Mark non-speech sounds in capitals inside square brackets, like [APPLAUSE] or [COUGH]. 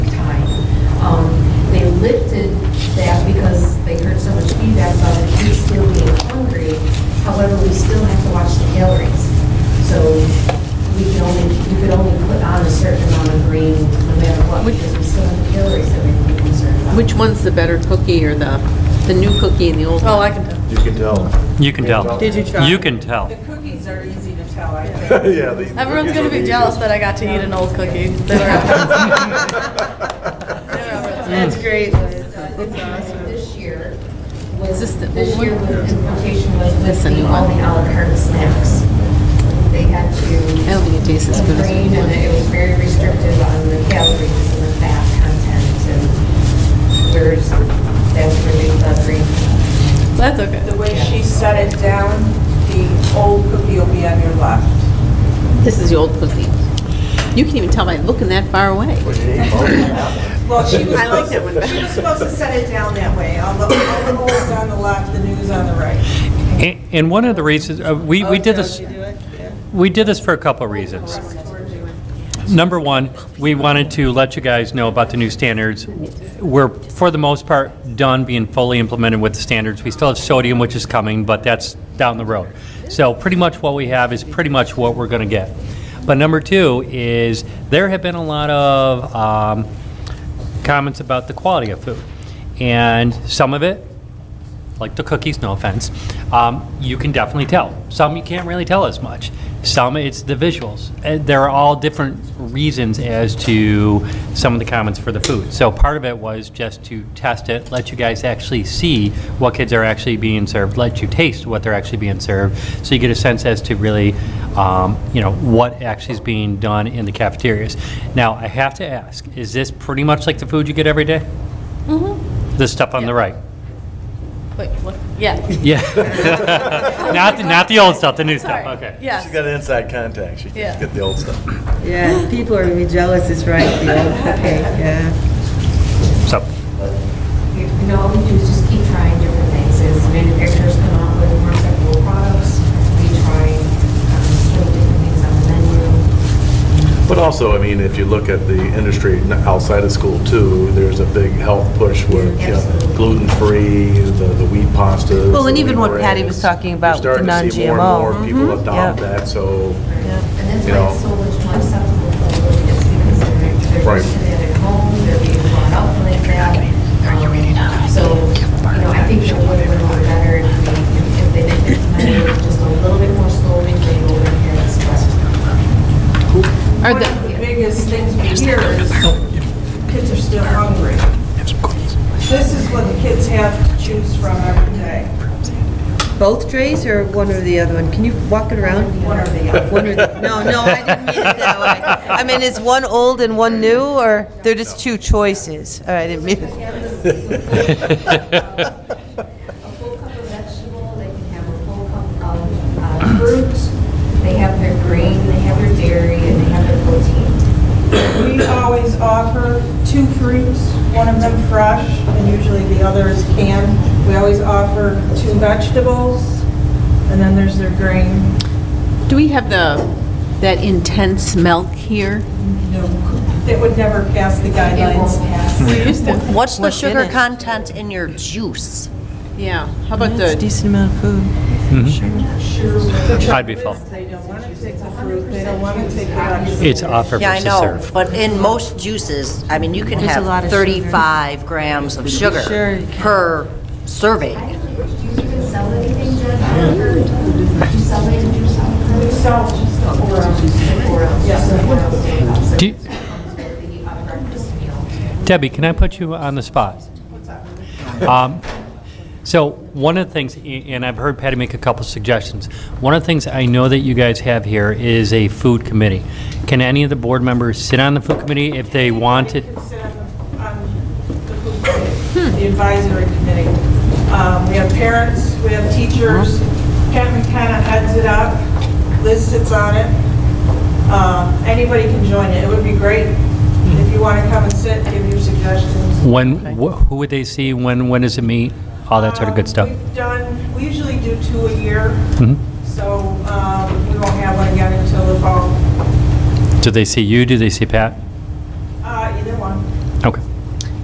Um, Which one's the better cookie or the, the new cookie and the old one? Oh, I can tell. You can tell. You can tell. Did you try? You can tell. Cookies are easy to tell, I think. [LAUGHS] Yeah. the- Everyone's these gonna are be easy. jealous that I got to eat an old cookie. They were- Mm. That's great. This year was, Is this the this old year one? Oh, was, implementation was That's the new listing all the one. à la carte snacks. They had to. I don't think it tastes as good as the Agreed, new one. and it was very restrictive on the calories and the fat content and where's, that's where they got green. That's okay. The way she set it down, the old cookie will be on your left. This is the old cookie. You can even tell by looking that far away. Well, she was I like that one supposed, she was supposed to set it down that way. All the, all the old's on the left, the new's on the right. A- And one of the reasons, uh, we, we did Oh, this, we did this for a couple of reasons. Number one, we wanted to let you guys know about the new standards. We're, for the most part, done being fully implemented with the standards. We still have sodium, which is coming, but that's down the road. So pretty much what we have is pretty much what we're going to get. But number two is, there have been a lot of um, comments about the quality of food. And some of it, like the cookies, no offense, um, you can definitely tell. Some you can't really tell as much. Some it's the visuals. Uh, There are all different reasons as to some of the comments for the food. So part of it was just to test it, let you guys actually see what kids are actually being served, let you taste what they're actually being served, so you get a sense as to really, um, you know, what actually is being done in the cafeterias. Now, I have to ask, is this pretty much like the food you get every day? The stuff on the right? Wait, what? Yeah. Yeah. Not, the- not the old stuff, the new stuff, Sorry. okay. [LAUGHS] Yes. She's got an inside contact. She Yeah. can get the old stuff. Yeah, people are gonna be jealous, it's right, [LAUGHS] the old cookie, yeah. So, You know, all we do is just keep trying different things, as manufacturers come out with more acceptable products, we try, um, put different things on the menu. But also, I mean, if you look at the industry n- outside of school too, there's a big health push where you know, Absolutely. gluten-free, the the wheat pastas. Well, and the even what wheat Patty breads. was talking about We're with the starting to see more non-GMO. and more people adopt Mm-hmm. yeah. that, so, And that's You why know. it's so much more acceptable for those kids because they're, they're Right. used to that at home, they're being brought up like that. Um, So, you know, I think it would have been a lot better if we, if they did implement it just a little bit more slowly, they go over here and express. Are One of the, the biggest things we hear is kids are still hungry. This is what the kids have to choose from every day, Both trays or one or the other one? Can you walk it around? one or the other. One or the, No, no, I didn't mean it that way. I mean, is one old and one new, or they're just two choices? All right, I didn't mean [LAUGHS] A it. full cup of vegetable, they can have a full cup of uh, fruit, they have their grain, they have their dairy, and they have their protein. We always offer two fruits, one of them fresh, and usually the other is canned. We always offer two vegetables, and then there's their grain. do we have the, that intense milk here? It would never pass the It guidelines. won't pass. What's the What's in sugar it? content in your juice? Yeah, how about It's a the, decent amount of food. I'd be full. They don't want to take the fruit, they don't want to take the vegetables. It's offer Yeah, I versus know, serve. but in most juices, I mean, you can There's a lot have of sugar. 35 grams of sugar Sure, you can. per serving. I don't know, do you even sell anything, Jen? I haven't heard. Do you sell any juice out there? We sell just the four ounces. The four ounces. Yes. The four ounces. Do you- The uh, breakfast meal. Debbie, can I put you on the spot? Um, So, one of the things, a- and I've heard Patty make a couple suggestions, one of the things I know that you guys have here is a food committee. Can any of the board members sit on the food committee if they want it? We can sit on the- on the food committee, The advisory committee. Um, We have parents, we have teachers. Kent McKenna heads it up. Liz sits on it. Um, Anybody can join it. It would be great if you want to come and sit, give your suggestions. When, wh- who would they see, when, when does it meet, all that sort of good Um, stuff? We've done, we usually do two a year, Mhm. so um, we won't have one again until the fall. Do they see you, do they see Pat? Uh, Either one. Okay.